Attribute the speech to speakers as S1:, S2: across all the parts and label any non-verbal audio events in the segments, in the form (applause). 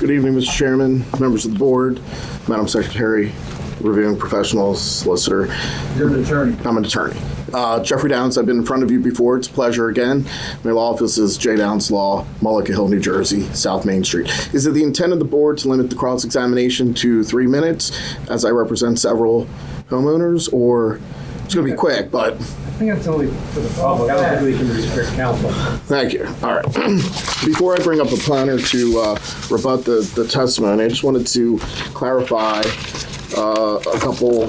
S1: Good evening, Mr. Chairman, members of the board, Madam Secretary, reviewing professionals, solicitor.
S2: You're the attorney.
S1: I'm an attorney. Uh, Jeffrey Downs, I've been in front of you before. It's a pleasure again. My law office is J. Downs Law, Mullica Hill, New Jersey, South Main Street. Is it the intent of the board to limit the cross-examination to three minutes as I represent several homeowners, or it's going to be quick, but
S2: I think that's only for the public. I don't think we can restrict counsel.
S1: Thank you. All right. (clears throat) Before I bring up the planner to uh, rebut the, the testimony, I just wanted to clarify uh, a couple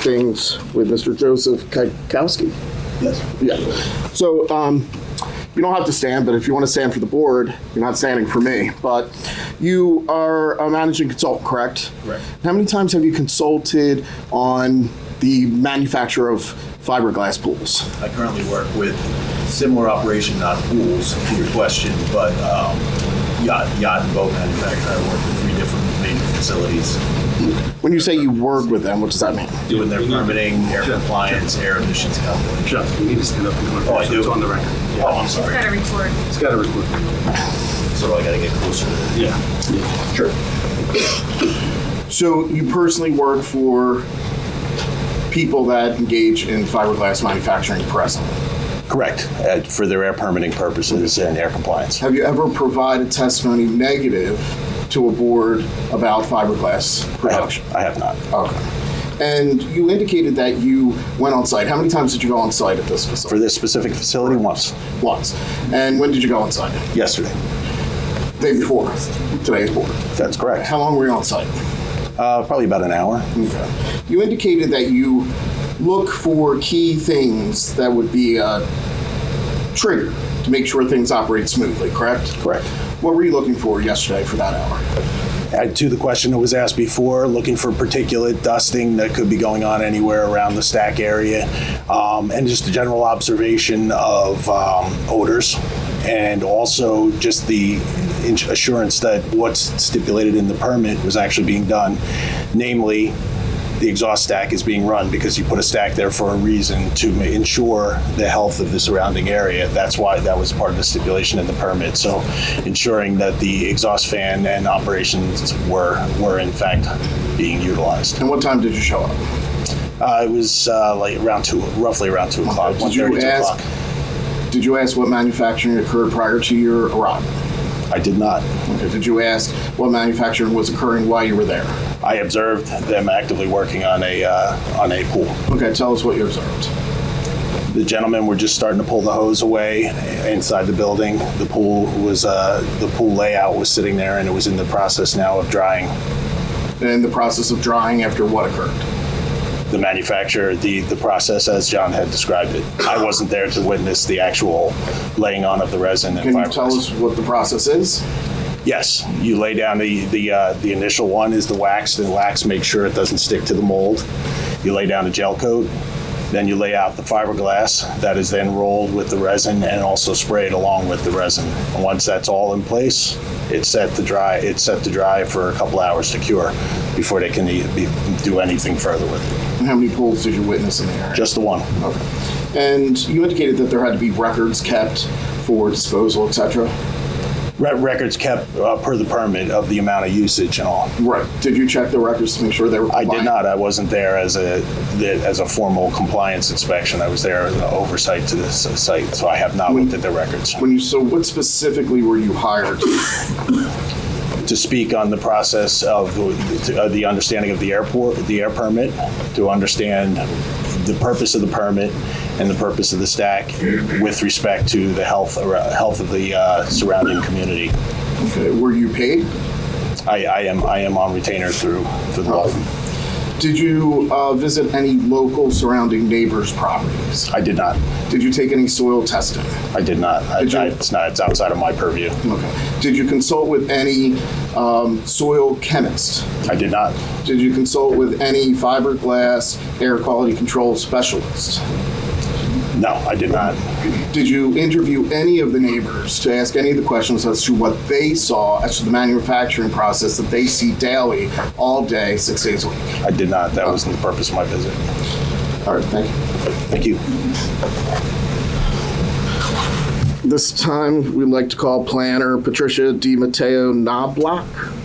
S1: things with Mr. Joseph Kikowski. Yes. Yeah. So um, you don't have to stand, but if you want to stand for the board, you're not standing for me. But you are a managing consultant, correct? Correct. How many times have you consulted on the manufacture of fiberglass pools?
S3: I currently work with similar operation, not pools, to your question, but um, yacht, yacht and boat manufacturer. I work with three different main facilities,
S1: When you say you work with them, what does that mean?
S3: doing their permitting, air compliance, air emissions calculation.
S4: Jeff, you need to stand up and go.
S3: Oh, I
S4: So
S3: do?
S4: It's on the record.
S3: Oh, I'm sorry.
S5: Got to record.
S4: It's got to record.
S3: So I got to get closer to the
S4: Yeah.
S1: Sure. So you personally work for people that engage in fiberglass manufacturing presently.
S3: Correct, uh, for their air permitting purposes and air compliance.
S1: Have you ever provided testimony negative to a board about fiberglass production?
S3: I have not.
S1: Okay. And you indicated that you went on site. How many times did you go on site at this facility?
S3: this specific facility, once.
S1: Once. And when did you go on site?
S3: Yesterday.
S1: Day before today's board.
S3: That's correct.
S1: How long were you on site?
S3: Uh, probably about an hour.
S1: You indicated that you look for key things that would be a trigger to make sure things operate smoothly, correct?
S3: Correct.
S1: What were you looking for yesterday for that hour?
S3: Uh, to the question that was asked before, looking for particulate dusting that could be going on anywhere around the stack area, um, and just a general observation of um, odors, and also just the ins- assurance that what's stipulated in the permit was actually being done, namely the exhaust stack is being run because you put a stack there for a reason to ma- ensure the health of the surrounding area. That's why that was part of the stipulation in the permit. So ensuring that the exhaust fan and operations were, were in fact being utilized.
S1: And what time did you show up?
S3: Uh, it was uh, like around two, roughly around two o'clock,
S1: Did you
S3: 1:30, 2
S1: ask-
S3: o'clock.
S1: Did you ask what manufacturing occurred prior to your arrival?
S3: I did not.
S1: Okay. Did you ask what manufacturing was occurring while you were there?
S3: I observed them actively working on a, uh, on a pool.
S1: Okay, tell us what you observed.
S3: The gentlemen were just starting to pull the hose away inside the building. The pool was, uh, the pool layout was sitting there and it was in the process now of drying.
S1: And the process of drying after what occurred?
S3: The manufacturer, the, the process as John had described it. I wasn't there to witness the actual laying on of the resin and
S1: Can you tell us
S3: fiberglass.
S1: what the process is?
S3: Yes, you lay down the, the, uh, the initial one is the wax. The wax makes sure it doesn't stick to the mold. You lay down a gel coat. Then you lay out the fiberglass that is then rolled with the resin and also sprayed along with the resin. And once that's all in place, it's set to dry. It's set to dry for a couple hours to cure before they can e- be, do anything further with it.
S1: And how many pools did you witness in the area?
S3: Just the one.
S1: Okay. And you indicated that there had to be records kept for disposal, etc.
S3: Re- records kept uh, per the permit of the amount of usage and all.
S1: Right. Did you check the records to make sure they were?
S3: I did
S1: compliant?
S3: not. I wasn't there as a the- as a formal compliance inspection. I was there as an oversight to this site, so I have not looked at the records.
S1: When you so, what specifically were you hired?
S3: To speak on the process of the, uh, the understanding of the airport, the air permit, to understand the purpose of the permit and the purpose of the stack with respect to the health ar- health of the uh, surrounding community.
S1: Okay. Were you paid?
S3: I, I am I am on retainer through through the law. firm.
S1: Did you uh, visit any local surrounding neighbors' properties?
S3: I did not.
S1: Did you take any soil testing?
S3: I did not. I,
S1: Did you-
S3: I, it's not. It's outside of my purview.
S1: Okay. Did you consult with any um, soil chemist?
S3: I did not.
S1: Did you consult with any fiberglass air quality control specialist?
S3: No, I did not.
S1: Did you interview any of the neighbors to ask any of the questions as to what they saw as to the manufacturing process that they see daily, all day, six days a week?
S3: I did not. That wasn't the purpose of my visit.
S1: All right, thank you.
S3: Thank you.
S1: This time, we'd like to call planner Patricia Di Matteo Knobloch.